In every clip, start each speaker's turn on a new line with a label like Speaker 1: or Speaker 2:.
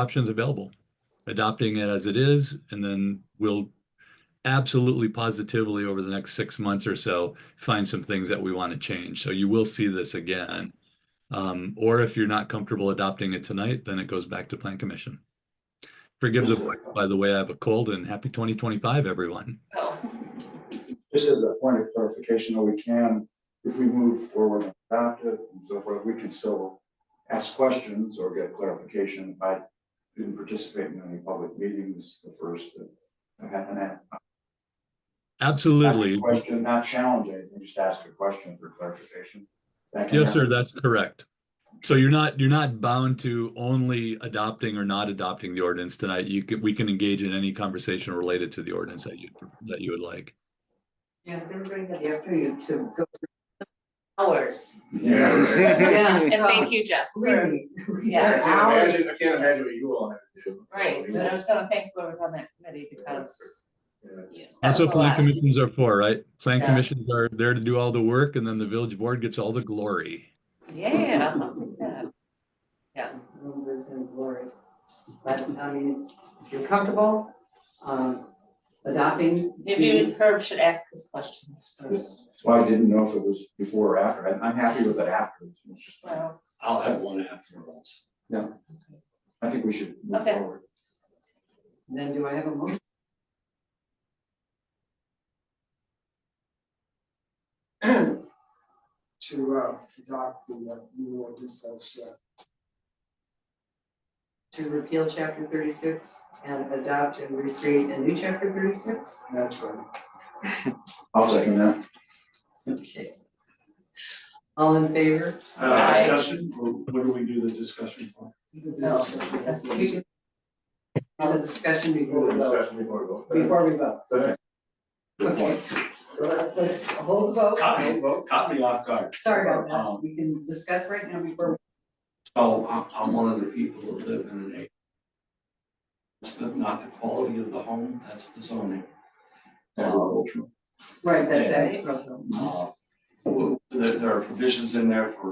Speaker 1: options available. Adopting it as it is, and then we'll absolutely positively over the next six months or so, find some things that we want to change. So you will see this again. Um, or if you're not comfortable adopting it tonight, then it goes back to plan commission. Forgive the, voice, by the way, I have a cold and happy twenty twenty-five, everyone.
Speaker 2: Oh,
Speaker 3: Just as a point of clarification, though, we can, if we move forward and adopt it and so forth, we can still ask questions or get clarification. If I didn't participate in any public meetings, the first, that I had an a- ask a
Speaker 1: Absolutely.
Speaker 3: question, not challenge anything, just ask a question for clarification. That can
Speaker 1: Yes, sir,
Speaker 3: happen.
Speaker 1: that's correct. So you're not, you're not bound to only adopting or not adopting the ordinance tonight. You can, we can engage in any conversation related to the ordinance that you, that you would like.
Speaker 2: yes, everybody got the opportunity to go through hours.
Speaker 3: Yeah.
Speaker 2: And
Speaker 4: thank you, Jeff.
Speaker 2: Really?
Speaker 4: Yeah.
Speaker 3: Hours. I can't imagine what you all have to do.
Speaker 2: Right, but I was gonna thank whoever's on that committee because.
Speaker 3: Yeah.
Speaker 2: you know, that
Speaker 1: That's what
Speaker 2: was a lot.
Speaker 1: plan commissions are for, right? Plan
Speaker 2: Yeah.
Speaker 1: commissions are there to do all the work and then the village board gets all the glory.
Speaker 2: Yeah, I'll take that. Yeah. Numbers and glory.
Speaker 5: But I mean, if you're comfortable, um, adopting.
Speaker 4: Maybe
Speaker 5: these-
Speaker 4: Herb should ask his questions first.
Speaker 3: That's why I didn't know if it was before or after. I- I'm happy with it after. It's just,
Speaker 2: Well,
Speaker 6: I'll have one afterwards.
Speaker 3: I think we should move
Speaker 2: Okay.
Speaker 3: forward.
Speaker 5: Then do I have a motion?
Speaker 7: to uh adopt the uh, new ordinance as uh
Speaker 5: To repeal chapter thirty-six and adopt and recreate a new chapter thirty-six?
Speaker 7: that's right.
Speaker 3: I'll second that.
Speaker 5: Okay. All in favor?
Speaker 6: Uh,
Speaker 2: Aye.
Speaker 6: discussion, or what do we do the discussion for?
Speaker 5: No. Have a discussion before we vote.
Speaker 3: Discussion before we vote.
Speaker 5: Before we vote.
Speaker 3: Okay. Good
Speaker 5: Okay. Let's hold the vote.
Speaker 6: Caught me, well, caught me off guard.
Speaker 5: Sorry about that.
Speaker 6: Um,
Speaker 5: We can discuss right now before.
Speaker 6: So I'm, I'm one of the people who live in an A. It's the- not the quality of the home, that's the zoning.
Speaker 3: Agricultural.
Speaker 5: Right, that's
Speaker 6: Yeah.
Speaker 5: it.
Speaker 6: Uh, w- There, there are provisions in there for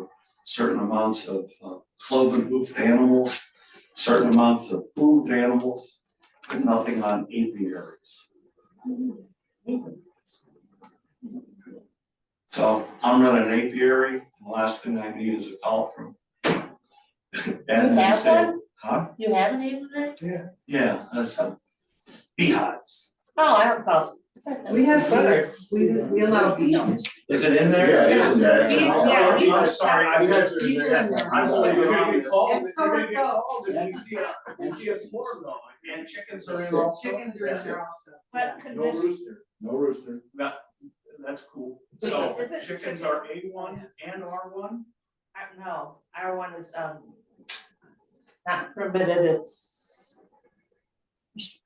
Speaker 6: certain amounts of uh, cloven hoofed animals, certain amounts of food animals, but nothing on apiaries. So I'm running an apiary, and the last thing I need is a call from. Ed
Speaker 4: You
Speaker 6: and
Speaker 4: have
Speaker 6: say,
Speaker 4: one?
Speaker 6: Huh?
Speaker 4: You have an apiary?
Speaker 6: Yeah, that's a beehives.
Speaker 4: Oh, I have a problem.
Speaker 5: We have birds. We, we allow bees.
Speaker 6: Is it in there?
Speaker 3: Yeah, it is in there.
Speaker 4: Bees, yeah, bees
Speaker 6: I'm
Speaker 4: are
Speaker 6: sorry, I
Speaker 4: separate.
Speaker 6: missed it.
Speaker 5: Bees are in there.
Speaker 6: I'm only been on
Speaker 5: And
Speaker 6: this.
Speaker 5: so are goats.
Speaker 6: And you see, a- you see a swarm though, and chickens are in
Speaker 3: Six.
Speaker 6: also.
Speaker 5: Chickens are in there also.
Speaker 4: But
Speaker 6: No
Speaker 4: condition,
Speaker 6: rooster,
Speaker 3: No rooster.
Speaker 6: that, that's cool. So
Speaker 4: Is it-
Speaker 6: chickens are A one and R one?
Speaker 4: I- no, our one is, um, not permitted, it's,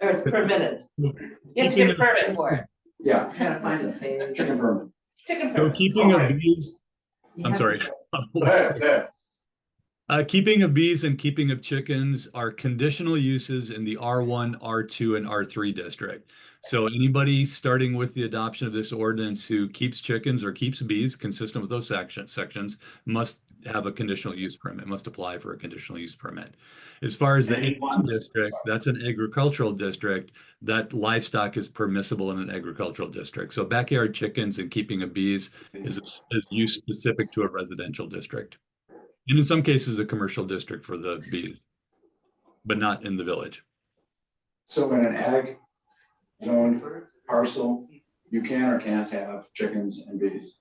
Speaker 4: or it's permitted. You have to get a permit for it.
Speaker 3: Yeah,
Speaker 5: Gotta find a page.
Speaker 3: chicken burn.
Speaker 4: Chicken
Speaker 1: So
Speaker 4: permit.
Speaker 1: keeping of
Speaker 6: Okay.
Speaker 1: bees,
Speaker 5: You
Speaker 1: I'm
Speaker 5: have
Speaker 1: sorry.
Speaker 5: to-
Speaker 1: Uh, keeping of bees and keeping of chickens are conditional uses in the R1, R2, and R3 district. So anybody starting with the adoption of this ordinance who keeps chickens or keeps bees consistent with those section, sections must have a conditional use permit, must apply for a conditional use permit. As far as the
Speaker 6: And
Speaker 1: A1 district, that's an agricultural district, that livestock is permissible in an agricultural district. So backyard chickens and keeping of bees is, is use specific to a residential district. And in some cases, a commercial district for the bees, but not in the village.
Speaker 3: So in an ag zoned parcel, you can or can't have chickens and bees.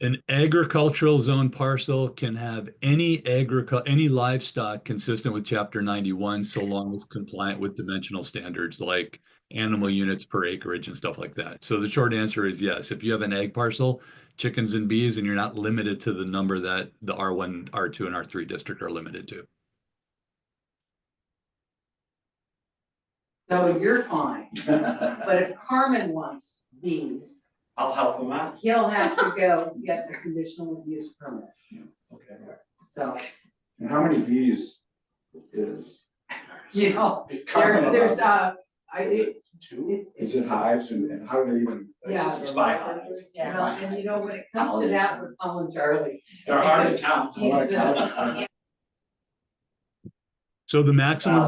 Speaker 1: An agricultural zone parcel can have any agricul, any livestock consistent with chapter ninety-one, so long as compliant with dimensional standards like animal units per acreage and stuff like that. So the short answer is yes, if you have an egg parcel, chickens and bees, and you're not limited to the number that the R one, R two, and R three district are limited to.
Speaker 5: So you're fine, but if Carmen wants bees,
Speaker 6: I'll help them out.
Speaker 5: he'll have to go get a conditional use permit,
Speaker 6: Okay.
Speaker 5: so,
Speaker 3: And how many bees is,
Speaker 5: you know,
Speaker 3: Carmen
Speaker 5: there, there's, uh, I,
Speaker 6: Is
Speaker 5: it,
Speaker 6: it Two?
Speaker 5: it,
Speaker 3: is it hives and and how do they even?
Speaker 5: yeah.
Speaker 6: It's by hives.
Speaker 5: You
Speaker 4: Yeah.
Speaker 5: know, and you know, when it comes to that, we're calling Charlie.
Speaker 6: They're hard to count.
Speaker 5: He's the-
Speaker 3: Hard to count.
Speaker 1: So the maximum